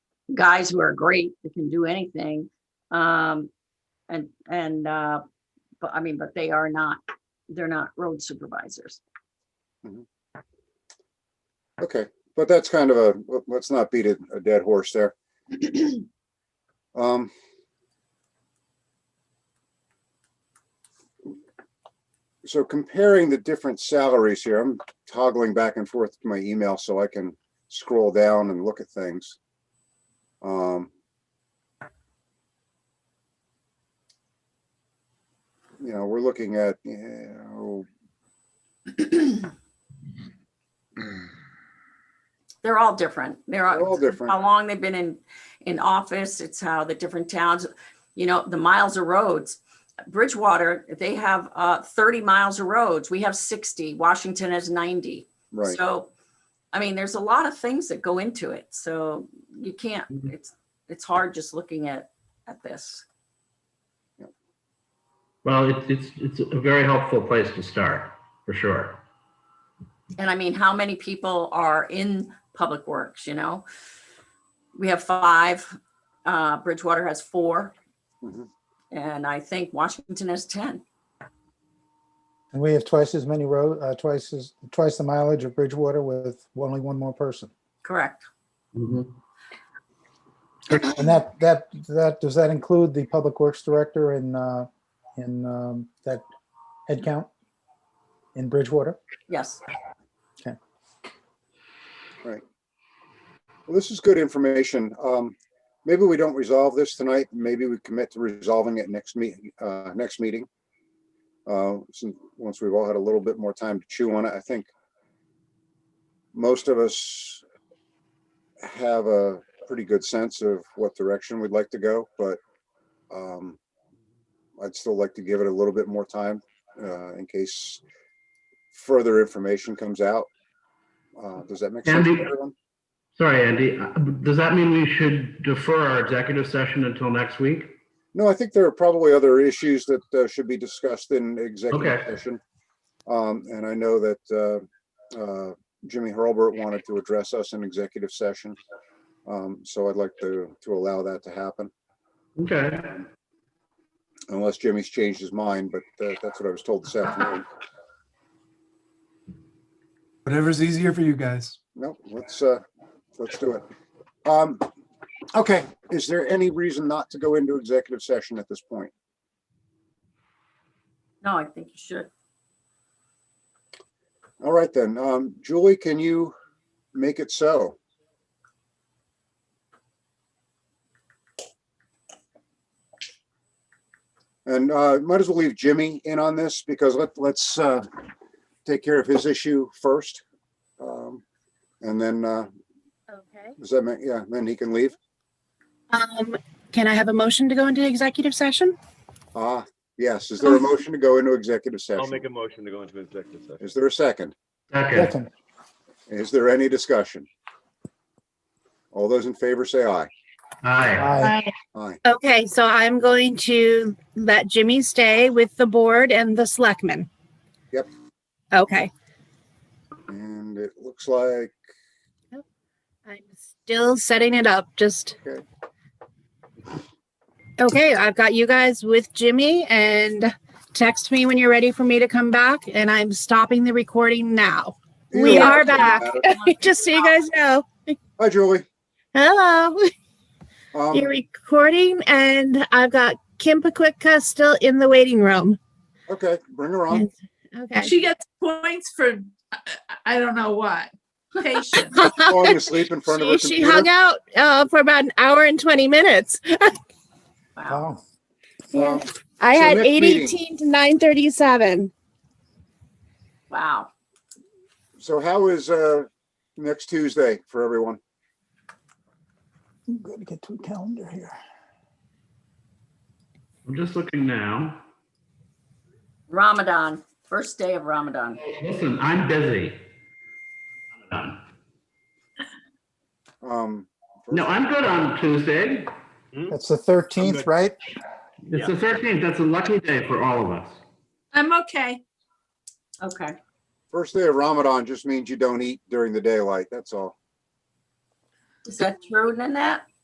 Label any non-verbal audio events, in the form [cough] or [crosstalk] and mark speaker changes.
Speaker 1: guys who are great that can do anything. Um, and, and, uh, but I mean, but they are not, they're not road supervisors.
Speaker 2: Okay, but that's kind of a, let- let's not beat a, a dead horse there. Um. So comparing the different salaries here, I'm toggling back and forth to my email so I can scroll down and look at things. Um. You know, we're looking at, you know,
Speaker 1: They're all different. They're
Speaker 2: They're all
Speaker 1: all,
Speaker 2: different.
Speaker 1: how long they've been in, in office. It's how the different towns, you know, the miles of roads. Bridgewater, they have, uh, thirty miles of roads. We have sixty. Washington has ninety.
Speaker 2: right,
Speaker 1: So, I mean, there's a lot of things that go into it. So you can't,
Speaker 2: Mm-hmm.
Speaker 3: Mhm.
Speaker 1: it's, it's hard just looking at, at this.
Speaker 3: Well, it's, it's, it's a very helpful place to start, for sure.
Speaker 1: And I mean, how many people are in public works, you know? We have five, uh, Bridgewater has four.
Speaker 2: Mhm.
Speaker 1: And I think Washington has ten.
Speaker 4: And we have twice as many road, uh, twice as, twice the mileage of Bridgewater with only one more person.
Speaker 1: Correct.
Speaker 4: And that, that, that, does that include the Public Works Director in, uh, in, um, that head count in Bridgewater?
Speaker 1: Yes.
Speaker 2: Well, this is good information. Um, maybe we don't resolve this tonight. Maybe we commit to resolving it next meet, uh, next meeting. Uh, since, once we've all had a little bit more time to chew on it, I think most of us have a pretty good sense of what direction we'd like to go, but um, I'd still like to give it a little bit more time, uh, in case further information comes out. Uh, does that make sense? to
Speaker 3: Andy?
Speaker 2: everyone?
Speaker 3: Sorry, Andy, uh, does that mean we should defer our executive session until next week?
Speaker 2: No, I think there are probably other issues that uh, should be discussed in executive
Speaker 3: Okay.
Speaker 2: session. Um, and I know that uh, uh, Jimmy Hurlbert wanted to address us in executive session. Um, so I'd like to, to allow that to happen
Speaker 3: Okay,
Speaker 2: unless Jimmy's changed his mind, but uh, that's what I was told this afternoon.
Speaker 5: Whatever's easier for you guys.
Speaker 2: No, let's, uh, let's do it. Um, okay, is there any reason not to go into executive session at this point?
Speaker 1: No, I think you should. [laughs]
Speaker 2: All right then, um, Julie, can you make it so? And, uh, might as well leave Jimmy in on this because let, let's, uh, take care of his issue first. Um, and then, uh,
Speaker 6: Okay.
Speaker 2: does that make, yeah, then he can leave.
Speaker 6: Um, can I have a motion to go into executive session?
Speaker 2: Ah, yes, is there a motion to go into executive
Speaker 7: I'll
Speaker 2: session?
Speaker 7: make a motion to go into executive session.
Speaker 2: Is there a second?
Speaker 3: second.
Speaker 4: Second,
Speaker 2: Is there any discussion? All those in favor say aye.
Speaker 3: Aye.
Speaker 4: aye,
Speaker 2: Aye.
Speaker 6: Okay, so I'm going to let Jimmy stay with the board and the selectmen.
Speaker 2: Yep.
Speaker 6: Okay,
Speaker 2: And it looks like
Speaker 6: I'm still setting it up, just.
Speaker 2: Okay.
Speaker 6: Okay, I've got you guys with Jimmy and text me when you're ready for me to come back and I'm stopping the recording now. We
Speaker 2: Yeah,
Speaker 6: are
Speaker 2: doesn't [laughs]
Speaker 6: back. [laughs]
Speaker 2: matter.
Speaker 6: Just so you guys know.
Speaker 2: Hi, Julie.
Speaker 6: Hello.
Speaker 2: Um,
Speaker 6: You're recording, and I've got Kim Pakwika still in the waiting room.
Speaker 2: okay, bring her
Speaker 6: [laughs]
Speaker 2: on.
Speaker 6: Okay.
Speaker 8: She gets points for, I- I I don't know what, patience.
Speaker 2: Falling asleep in front of her
Speaker 6: she, she hung
Speaker 2: computer.
Speaker 6: out uh, for about an hour and 20 minutes.
Speaker 1: Wow.
Speaker 4: wow,
Speaker 2: Um,
Speaker 6: I
Speaker 2: So
Speaker 6: had
Speaker 2: next
Speaker 6: 818 to 937.
Speaker 1: Wow.
Speaker 2: So how is, uh, next Tuesday for everyone?
Speaker 4: I'm gonna get to a calendar here.
Speaker 3: I'm just looking now.
Speaker 1: Ramadan, first day of Ramadan.
Speaker 3: Listen, I'm busy. I'm done.
Speaker 2: Um,
Speaker 3: No, I'm good on Tuesday.
Speaker 4: That's the thirteenth, right?
Speaker 3: It's the 13th, that's a lucky day for all of us.
Speaker 8: I'm okay.
Speaker 1: Okay.
Speaker 2: First day of Ramadan just means you don't eat during the daylight, that's all.
Speaker 1: Is that true, Nanette?